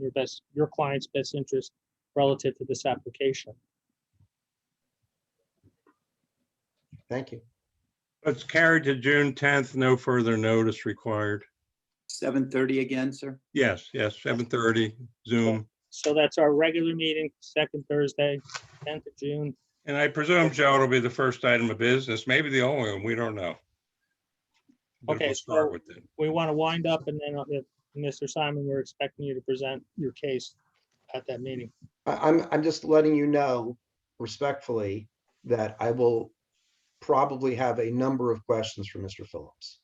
your best, your client's best interest relative to this application. Thank you. Let's carry to June tenth, no further notice required. Seven thirty again, sir? Yes, yes, seven thirty Zoom. So that's our regular meeting, second Thursday, tenth of June. And I presume, Joe, it'll be the first item of business, maybe the only one, we don't know. But Okay, we'll so- start with it. We want to wind up and then, uh, if- Mr. Simon, we're expecting you to present your case at that meeting. I, I'm, I'm just letting you know respectfully that I will probably have a number of questions for Mr. Phillips.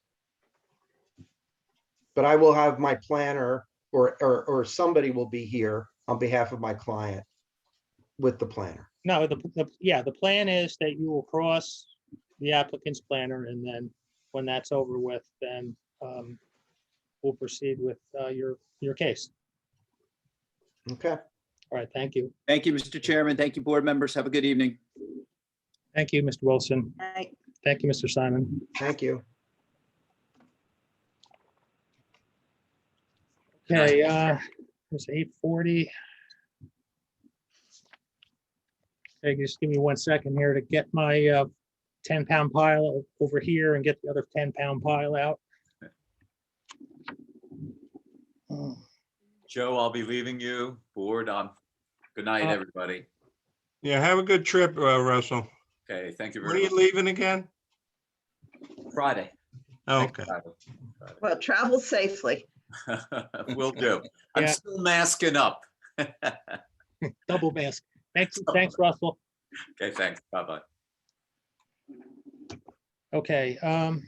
But I will have my planner or, or, or somebody will be here on behalf of my client with the planner. No, the, the, yeah, the plan is that you will cross the applicant's planner and then when that's over with, then um, we'll proceed with uh, your, your case. Okay, All right, thank you. Thank you, Mr. Chairman. Thank you, board members. Have a good evening. Thank you, Mr. Wilson. Right. Thank you, Mr. Simon. thank you. Okay, uh, it's eight forty. Okay, just give me one second here to get my uh ten pound pile o- over here and get the other ten pound pile out. Joe, I'll be leaving you. Board, um, good night, Uh, everybody. Yeah, have a good trip, uh, Russell. Okay, thank you When are very you much. leaving again? Friday. Oh, Okay. Well, travel safely. Will do. I'm Yeah. still masking up. Okay, Double mask. Thanks, thanks, Russell. thanks. Bye-bye. Okay, um.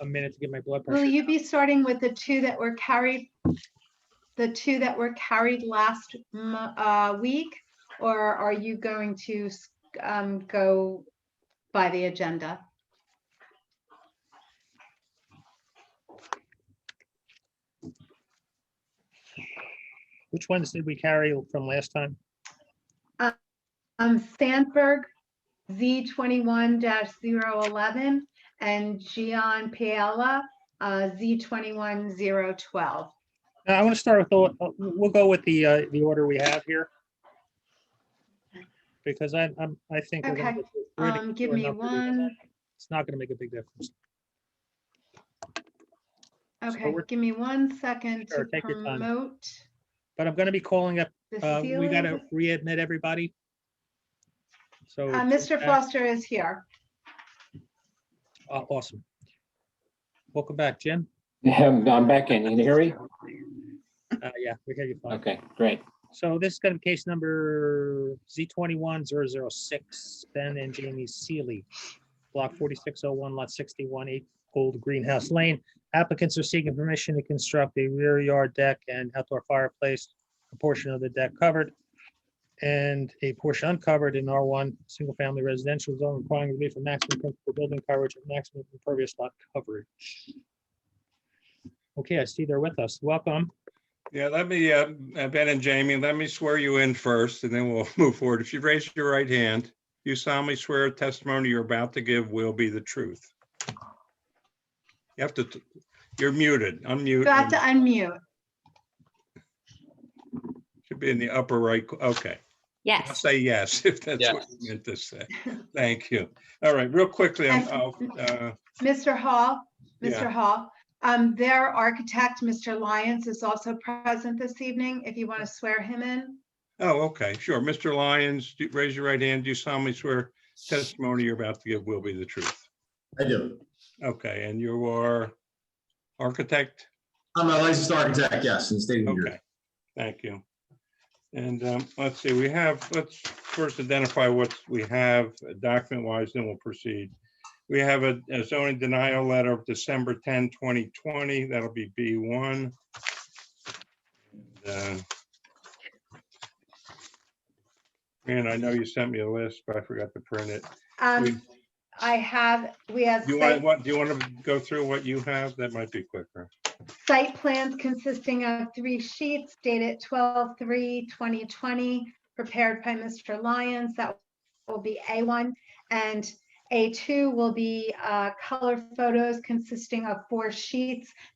A minute to get my blood Will pressure. you be starting with the two that were carried? The two that were carried last mo- uh, week? Or are you going to s- um, go by the agenda? Which ones did we carry from last time? Um, Sandberg, Z twenty-one 11 and Gian Piella, uh, Z twenty-one zero twelve. Uh, I want to start with, the. uh, we'll go with the, uh, the order we have here. Because I, I'm, I think. we're gonna Okay, get through- we're gonna um, get give through me enough to do that. one. It's not gonna make a big difference. Okay, we're- give me one second to Sure, take your time. promote. But I'm gonna be calling up, uh, we Cecilia. gotta readmit everybody. So. Uh, Mr. uh, Foster is here. aw- Awesome. Welcome back, Jim. Yeah, I'm back in. Can you hear me? Uh, yeah, we hear you fine. Okay, great. So this is gonna be case number Z twenty-one zero zero six, Ben and Jamie Seely. Block forty-six oh one, lot sixty-one, eight Old Greenhouse Lane. Applicants are seeking permission to construct a rear yard deck and outdoor fireplace, a portion of the deck covered and a portion uncovered in R one, single-family residential zone requiring relief from maximum principal building coverage and maximum impervious lot coverage. Okay, I see they're with us. Welcome. Yeah, let me, uh, uh, Ben and Jamie, let me swear you in first and then we'll move forward. If you raise your right hand, you solemnly swear a testimony you're about to give will be the truth. You have to, t- you're muted, unmute. You have to and unmute. Should be in the upper right, co- okay. I'll Yes. say yes, if that's what you meant to say. Thank you. All right, real quickly, I'm- I'll, uh, Mr. Hall, Yeah. Mr. Hall, um, their architect, Mr. Lyons, is also present this evening, if you want to swear him in. oh, okay, sure. Mr. Lyons, do- raise your right hand. Do you solemnly swear testimony you're about to give will be the truth? I do. Okay, and you are architect? I'm a licensed architect, yes, in the state of New Jersey. Okay, thank you. And um, let's see, we have, let's first identify what we have document wise, then we'll proceed. We have a a zoning denial letter of December 10, 2020. That'll be B1. And, uh, And I know you sent me a list, but I forgot to print it. Um, I have, we have Do you want, site, what, do you want to go through what you have? That might be quicker. site plans consisting of three sheets dated 2020, prepared by Mr. Lyons, that will be A one. And A two will be, uh, color photos consisting of four sheets